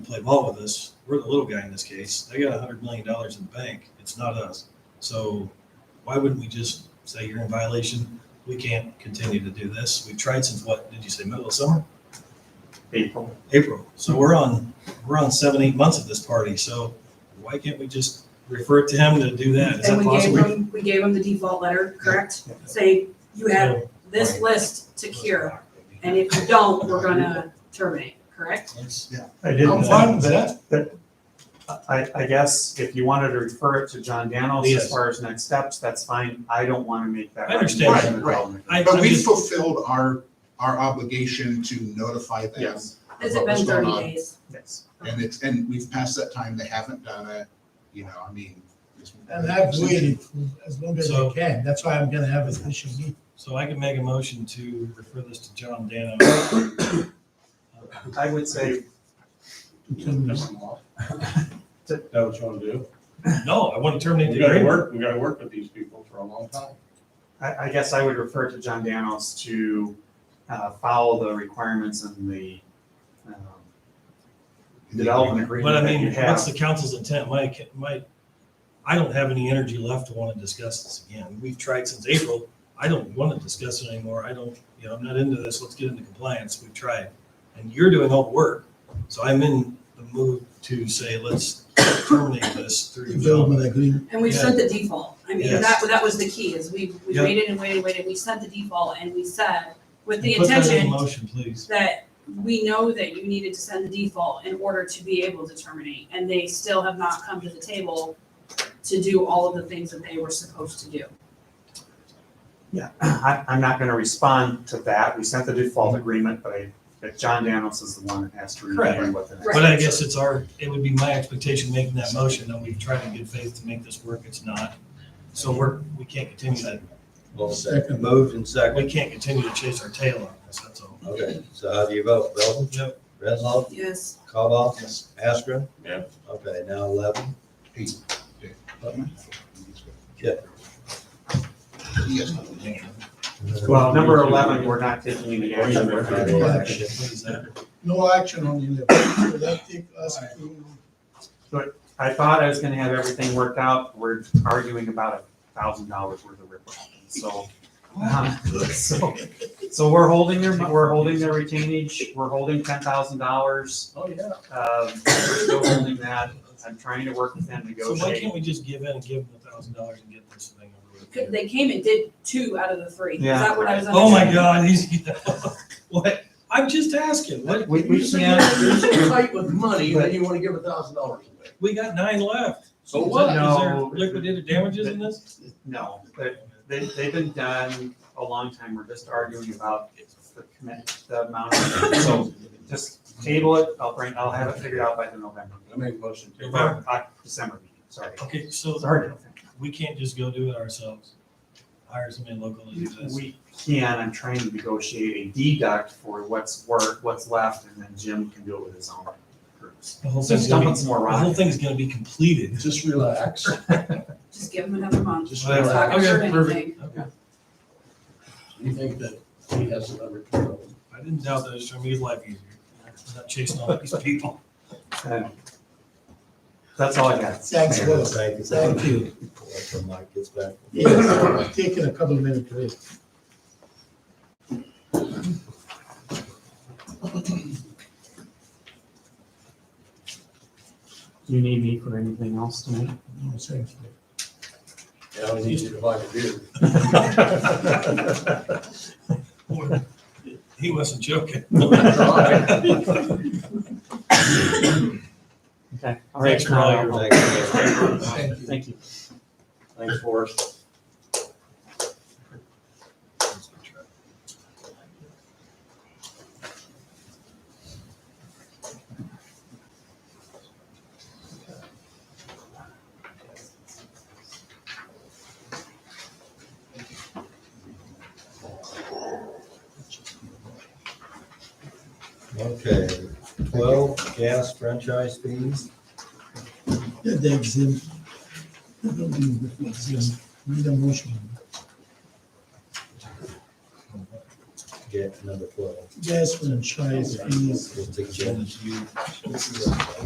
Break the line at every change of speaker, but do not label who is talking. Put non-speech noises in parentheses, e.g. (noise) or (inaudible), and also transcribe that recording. play ball with us. We're the little guy in this case. They got hundred million dollars in the bank. It's not us. So why wouldn't we just say you're in violation? We can't continue to do this. We've tried since what, did you say middle of summer?
April.
April. So we're on, we're on seven, eight months of this party. So why can't we just refer it to him to do that? Is that
And we gave
possible?
them, we gave them the default letter, correct? Say, you have this list to cure, and if you don't, we're gonna terminate, correct?
That's-
I didn't,
I'm fine with that.
I, I guess if you wanted to refer it to John Danos
Yes.
as far as next steps, that's fine. I don't want to make that.
I understand.
recommendation
Right,
at all.
I-
But
I'm
we
just-
fulfilled our, our obligation to notify them.
Yes,
Has it
What was
been
going
thirty
on?
days?
yes.
And it's, and we've passed that time, they haven't done it, you know, I mean. it's-
And I've waited for as long as I
So-
can, that's why I'm gonna have a special meeting.
So I can make a motion to refer this to John Dano. (coughs)
I would say,
(laughs) Is that what you want to do?
No, I want to terminate
We
the
gotta
agreement.
work, we gotta work with these people for a long time.
I, I guess I would refer to John Danos to uh, follow the requirements in the um, development
But I
agreement that you
mean, what's the
have.
council's intent? My, my, I don't have any energy left to want to discuss this again. We've tried since April. I don't want to discuss it anymore. I don't, you know, I'm not into this. Let's get into compliance. We've tried. And you're doing all the work. So I'm in the mood to say, let's terminate this through
Development
development.
agreement,
And we've sent the default. I mean,
Yes.
that, that was the key, is we, we
Yep.
waited and waited and waited, we sent the default, and we said, with the
And put that in
intention
Motion, please.
that we know that you needed to send the default in order to be able to terminate, and they still have not come to the table to do all of the things that they were supposed to do.
Yeah, (clears throat) I, I'm not going to respond to that. We sent the default agreement, but I, but John Danos is the one that has to review
Mm-hmm. Correct.
what the next.
But I guess it's our, it would be my expectation making that motion that we've tried in good faith to make this work. It's not. So we're, we can't continue that.
Well,
Second.
Moved and
We
second.
can't continue to chase our tail on this. That's all.
Okay, so how do you vote? Belvin?
Yep. Oh.
Redlaw?
Yes.
Cobal? Astra?
Yeah.
Okay, now eleven. Yeah.
Yes.
Well, number eleven, we're not taking any action.
We're not
taking
We're-
action.
What is that?
no action on the eleven, so that take us to,
I thought I was gonna have everything worked out, we're arguing about a thousand dollars worth of riprap, so. um, (laughs) So, so we're holding their, we're holding their retainage, we're holding ten thousand dollars,
Oh, yeah.
um, we're still holding that, I'm trying to work with them,
So why can't
negotiate.
we just give in and give them a thousand dollars and get this thing over with?
Could- They came and did two out of the three. Is
Yeah.
that what I was
Oh my
understanding?
God, he's, (laughs) what? I'm just asking, what,
We, we
You're
can't,
so tight with money, then you wanna give a thousand dollars away.
we got nine left.
So
Is
what?
there- Is there
Oh, No.
liquidated damages in this?
no, they, they- they've been done a long time, we're just arguing about the commit, the amount, so just table it, I'll bring, I'll have it figured out by the November.
I make a motion to.
November, uh, December meeting, sorry.
Okay, so
It's hard
we can't just go do it ourselves. Hire somebody local to do
to think.
this.
We can, I'm trying to negotiate a deduct for what's work, what's left, and then Jim can do it with his own groups.
The whole
So
thing's
just
gonna
dump
be,
it some more
the whole
rock.
thing's gonna be completed.
Just relax.
Just give them another month.
Just
It's not
relax.
gonna hurt
Okay, perfect.
anything.
Okay.
You think that he has it under control?
I didn't doubt that, it's gonna make his life easier. I'm not chasing all these people. (laughs)
Uh, That's all I got.
Thanks,
Mayor.
Will.
Thank you.
Thank you.
Until Mike gets back.
yes, taking a couple of minutes to it.
Do you need me for anything else tonight?
No, thank you.
Yeah, I need you to buy a beer.
He wasn't joking. (laughs)
Okay. All right.
Thanks for all your-
Thank you.
Thank you.
Thank you.
Thanks, Forrest.
Okay, twelve gas franchise fees.
Yeah, the exempt. The building with the exempt. Need a motion.
Get number twelve.
Gas franchise fees.
It's a-
You-